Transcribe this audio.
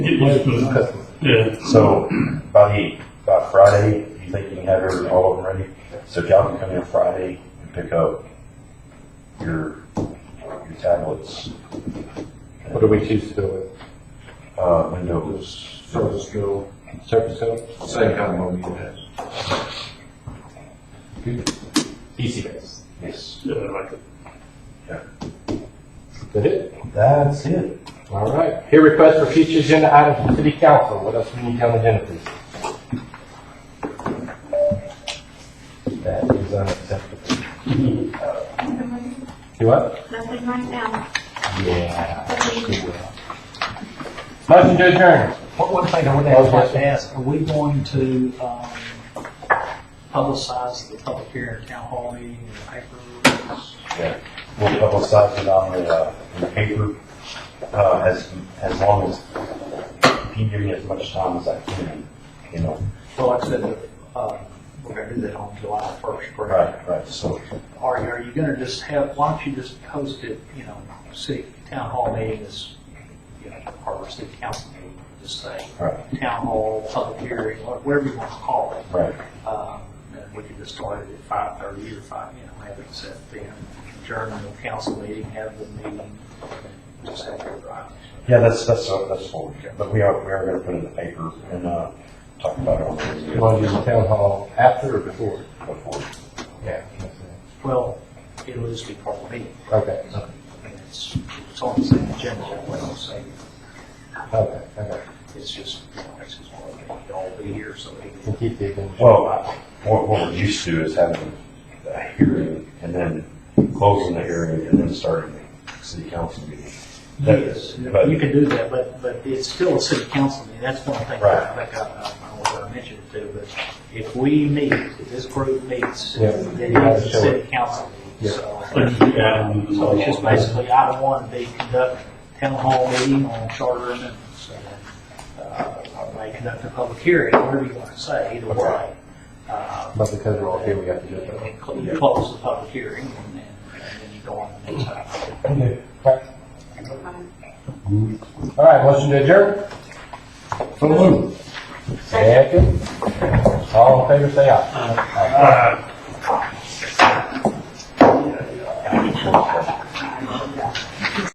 used to, Customers. yeah. So by, by Friday, do you think you can have every, all of them ready? So if y'all can come in Friday and pick up your, your tablets, What do we choose to go with? uh, Windows. Surface Go, Surface Go? same kind of one we had. PC base. Yes, Yeah, I like it. That it? that's it. All right. Here request for future agenda items from city council. What else we need on the agenda, please? That is unacceptable. Nothing Do what? right now. Yeah. Okay. Motion to adjourn. One, one thing I would Oh, yes. like to ask, are we going to, um, publicize the public hearing, town hall meeting, in the paper? Yeah. We'll publicize it on the, uh, in the paper, uh, as, as long as, you give me as much time as I can, you know. Well, like I said, uh, we're gonna do that on July first, correct? Right, right, so, Are, are you gonna just have, why don't you just post it, you know, city, town hall meeting is, you know, Harbor City Council meeting, just say, right, town hall, public hearing, whatever you want to call it. right. Um, and we could just start it at five thirty or five, you know, have it set then, adjourn the council meeting, have the meeting, just have it right. Yeah, that's, that's, uh, that's what we, but we are, we are gonna put it in the paper and, uh, talk about it on You the want to do the town hall after or before? before. Yeah. that's it. Well, it'll just be part of the meeting, Okay, and it's, it's on the same agenda, that way I'll say, okay, okay. it's just, you know, it's just, part of it. You'll all be here, so it- We'll keep the agenda. Well, I- what, what we're used to is having a hearing and then closing the hearing and then starting the city council meeting. That- Yes, but- you can do that, but, but it's still a city council meeting, that's one thing that I think I, I don't know I mentioned it too, but if we meet, if this group meets, Yeah. then it's a city council meeting, so. Like, yeah, and it's So all- it's just basically item one, they conduct town hall meeting on charter amendments, and, uh, they conduct a public hearing, whatever you want to say, either way. Uh, But because we're all here, we have to do it. and cl- you close the public hearing, and then, and then you go on to the next item. Okay. All right, motion to adjourn? So moved. Second. All in favor, say aye. Uh,